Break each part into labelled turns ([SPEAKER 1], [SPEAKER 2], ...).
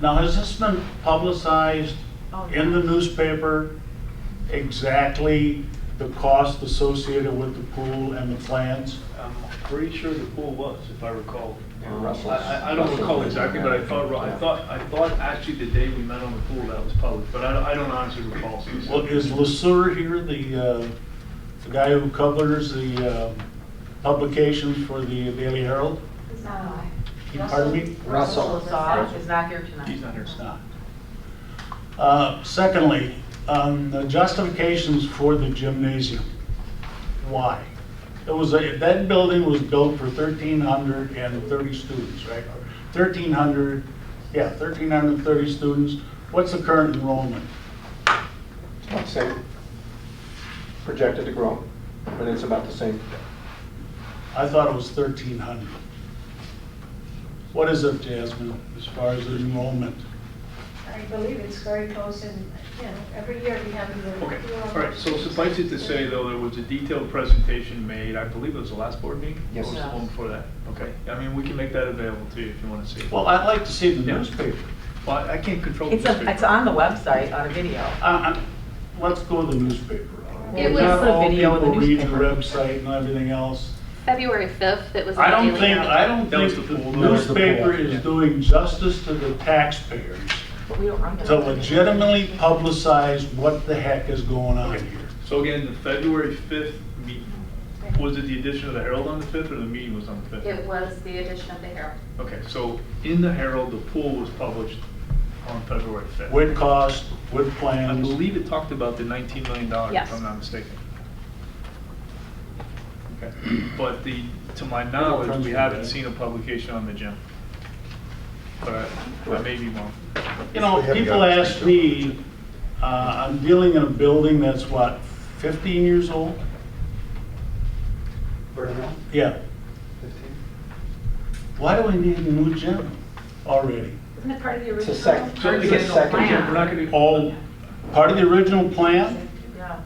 [SPEAKER 1] Now, has this been publicized
[SPEAKER 2] Oh, no.
[SPEAKER 1] in the newspaper, exactly the cost associated with the pool and the plans?
[SPEAKER 3] I'm pretty sure the pool was, if I recall.
[SPEAKER 4] Yeah, Russell's-
[SPEAKER 3] I, I- I don't recall exactly, but I thought, I thought, I thought actually the day we met on the pool, that was public, but I, don't- I don't honestly recall.
[SPEAKER 1] Well, is LaSur here, the, uh, the guy who covers the uh, publications for the Daily Herald?
[SPEAKER 2] It's not I.
[SPEAKER 1] Pardon me?
[SPEAKER 4] Russell.
[SPEAKER 2] Lazar is not here tonight.
[SPEAKER 3] He's not here.
[SPEAKER 1] It's not. Uh, Secondly, on the justifications for the gymnasium, why? It was, a- that building was built for 1,330 students, right? 1,300, yeah, 1,330 students. What's the current enrollment?
[SPEAKER 4] About the same, projected to grow, but it's about the same.
[SPEAKER 1] I thought it was 1,300. What is it, Jasmine, as far as enrollment?
[SPEAKER 5] I believe it's very close and, you know, every year we have the.
[SPEAKER 3] Okay, all right, so suffice it to say, though, there was a detailed presentation made, I believe it was the last board meeting?
[SPEAKER 4] Yes.
[SPEAKER 3] Or was it the one before that? Okay, I mean, we can make that available to you if you want to see. it.
[SPEAKER 1] Well, I'd like to see the
[SPEAKER 3] Yeah.
[SPEAKER 1] newspaper.
[SPEAKER 3] Well, I I can't control.
[SPEAKER 2] It's,
[SPEAKER 3] the
[SPEAKER 2] a- it's
[SPEAKER 3] newspaper.
[SPEAKER 2] on the website on a video.
[SPEAKER 1] Uh, uh, Let's go to the newspaper.
[SPEAKER 6] It was-
[SPEAKER 1] Not all
[SPEAKER 2] Put a video in the
[SPEAKER 1] people read the
[SPEAKER 2] newspaper.
[SPEAKER 1] website and everything else.
[SPEAKER 6] February 5th, it was.
[SPEAKER 1] I
[SPEAKER 6] on
[SPEAKER 1] don't
[SPEAKER 6] Daily
[SPEAKER 1] think,
[SPEAKER 6] Mail.
[SPEAKER 1] I don't
[SPEAKER 3] That was
[SPEAKER 1] think the
[SPEAKER 3] the pool. That was
[SPEAKER 4] the
[SPEAKER 1] newspaper
[SPEAKER 4] pool.
[SPEAKER 1] is doing justice to the taxpayers
[SPEAKER 2] But we don't run the.
[SPEAKER 1] to legitimately publicize what the heck is going on here.
[SPEAKER 3] So again, the February 5th meeting, was it the addition of the Herald on the 5th, or the meeting was on the 5th?
[SPEAKER 6] It was the edition of the Herald.
[SPEAKER 3] Okay, so in the Herald, the pool was published on February 5th.
[SPEAKER 1] With cost, with
[SPEAKER 3] I
[SPEAKER 1] plans.
[SPEAKER 3] believe it talked about the $19 million, if
[SPEAKER 6] Yes.
[SPEAKER 3] I'm not mistaken. Okay, But the, to my
[SPEAKER 1] Yeah,
[SPEAKER 3] knowledge, we
[SPEAKER 1] from-
[SPEAKER 3] haven't seen a publication on the gym. But I- I may be wrong.
[SPEAKER 1] You know,
[SPEAKER 4] We have
[SPEAKER 1] people
[SPEAKER 4] got-
[SPEAKER 1] ask me, uh, I'm dealing in a building that's what, 15 years old?
[SPEAKER 4] Burnout,
[SPEAKER 1] Yeah.
[SPEAKER 4] 15?
[SPEAKER 1] Why do we need a new gym already?
[SPEAKER 5] Isn't it part of the
[SPEAKER 4] It's a
[SPEAKER 5] original?
[SPEAKER 4] second,
[SPEAKER 3] So
[SPEAKER 2] Hard to
[SPEAKER 4] it's
[SPEAKER 2] get
[SPEAKER 4] a
[SPEAKER 2] no
[SPEAKER 4] second.
[SPEAKER 2] plan.
[SPEAKER 3] Again, we're not going to.
[SPEAKER 1] All part of the original plan?
[SPEAKER 2] Yeah.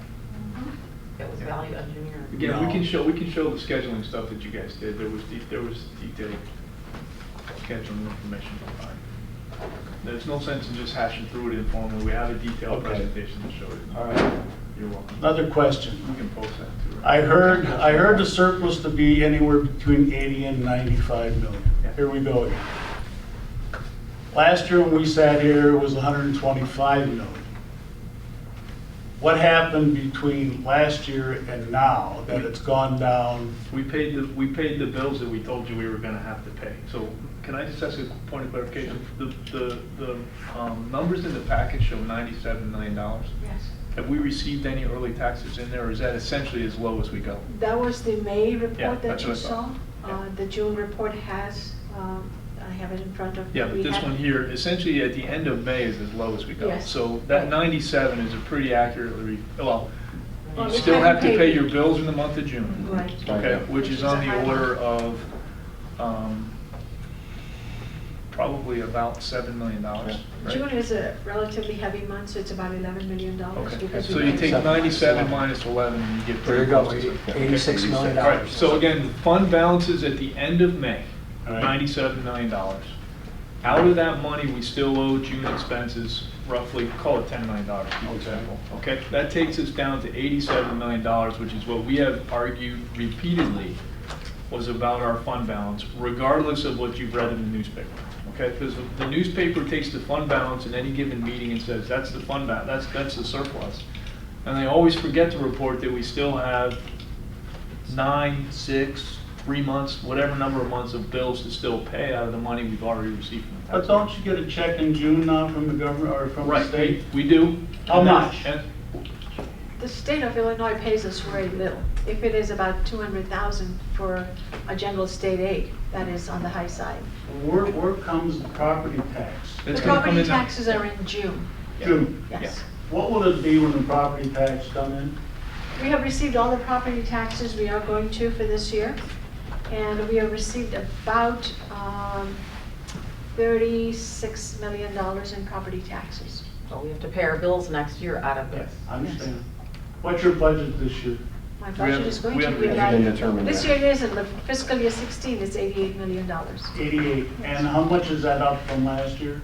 [SPEAKER 2] It was value engineered.
[SPEAKER 3] Again, we
[SPEAKER 1] No.
[SPEAKER 3] can show, we can show the scheduling stuff that you guys did, there was, de- there was detailed scheduling information. There's no sense in just hashing through it informally, we have a detailed
[SPEAKER 1] Okay.
[SPEAKER 3] presentation to show it.
[SPEAKER 4] All right.
[SPEAKER 3] You're welcome.
[SPEAKER 1] Another
[SPEAKER 3] We
[SPEAKER 1] question.
[SPEAKER 3] can post that too.
[SPEAKER 1] I heard, I heard the surplus to be anywhere between 80 and 95 million. Here we go again. Last year when we sat here, it was 125 million. What happened between last year and now that it's gone down?
[SPEAKER 3] We paid the, we paid the bills that we told you we were gonna have to pay, so can I just ask a point of clarification? The, the, the, um, numbers in the package show ninety-seven million dollars.
[SPEAKER 5] Yes.
[SPEAKER 3] Have we received any early taxes in there, or is that essentially as low as we go?
[SPEAKER 5] That was the May
[SPEAKER 3] Yeah,
[SPEAKER 5] report that
[SPEAKER 3] that's
[SPEAKER 5] you
[SPEAKER 3] what I
[SPEAKER 5] saw.
[SPEAKER 3] thought. Yeah.
[SPEAKER 5] Uh, The June report has, um, I have it in front of.
[SPEAKER 3] Yeah, but
[SPEAKER 5] we
[SPEAKER 3] this
[SPEAKER 5] have-
[SPEAKER 3] one here, essentially at the end of May is as low as we go.
[SPEAKER 5] Yes.
[SPEAKER 3] So that 97 is a pretty accurately, well,
[SPEAKER 5] Well,
[SPEAKER 3] you
[SPEAKER 5] we
[SPEAKER 3] still have
[SPEAKER 5] haven't
[SPEAKER 3] to
[SPEAKER 5] paid-
[SPEAKER 3] pay your bills in the month of June.
[SPEAKER 5] Right.
[SPEAKER 3] Okay, which is on
[SPEAKER 5] Which is
[SPEAKER 3] the
[SPEAKER 5] a high
[SPEAKER 3] order
[SPEAKER 5] one.
[SPEAKER 3] of um, probably about $7 million, right?
[SPEAKER 5] June is a relatively heavy month, so it's about eleven million dollars.
[SPEAKER 3] Okay, so you take 97 minus 11 and you get.
[SPEAKER 4] There you
[SPEAKER 3] pretty
[SPEAKER 4] go,
[SPEAKER 3] close to-
[SPEAKER 4] eighty-six million
[SPEAKER 3] All right,
[SPEAKER 4] dollars.
[SPEAKER 3] so again, the fund balances at the end of May,
[SPEAKER 1] All right.
[SPEAKER 3] $97 million. Out of that money, we still owe June expenses roughly, call it $10 million, for example. Okay, that takes us down to $87 million, which is what we have argued repeatedly was about our fund balance, regardless of what you've read in the newspaper. Okay, because the newspaper takes the fund balance in any given meeting and says, that's the fund balance, that's, that's the surplus. And they always forget to report that we still have nine, six, three months, whatever number of months of bills to still pay out of the money we've already received from the
[SPEAKER 1] But
[SPEAKER 3] tax.
[SPEAKER 1] don't you get a check in June now from the government or from the
[SPEAKER 3] Right,
[SPEAKER 1] state?
[SPEAKER 3] we- we do.
[SPEAKER 1] How
[SPEAKER 3] And that-
[SPEAKER 1] much?
[SPEAKER 3] and-
[SPEAKER 5] The state of Illinois pays us very little. If it is about two hundred thousand for a general state aid, that is on the high side.
[SPEAKER 1] Where, where comes the property tax?
[SPEAKER 5] The
[SPEAKER 3] it's gonna come
[SPEAKER 5] property
[SPEAKER 3] in now.
[SPEAKER 5] taxes are in June,
[SPEAKER 3] Yeah.
[SPEAKER 1] June,
[SPEAKER 5] yes.
[SPEAKER 1] what will it be when the property tax come in?
[SPEAKER 5] We have received all the property taxes we are going to for this year, and we have received about um, $36 million in property taxes.
[SPEAKER 2] So we have to pay our bills next year out of this.
[SPEAKER 1] I understand. What's your budget this year?
[SPEAKER 5] My
[SPEAKER 3] We
[SPEAKER 5] budget
[SPEAKER 3] haven't-
[SPEAKER 5] is going
[SPEAKER 3] we
[SPEAKER 5] to
[SPEAKER 3] haven't
[SPEAKER 5] be
[SPEAKER 3] really
[SPEAKER 4] been
[SPEAKER 5] about,
[SPEAKER 4] determined
[SPEAKER 5] this year
[SPEAKER 4] yet.
[SPEAKER 5] it is, and the fiscal year 16 is $88 million.
[SPEAKER 1] Eighty-eight. And how much is that up from last year?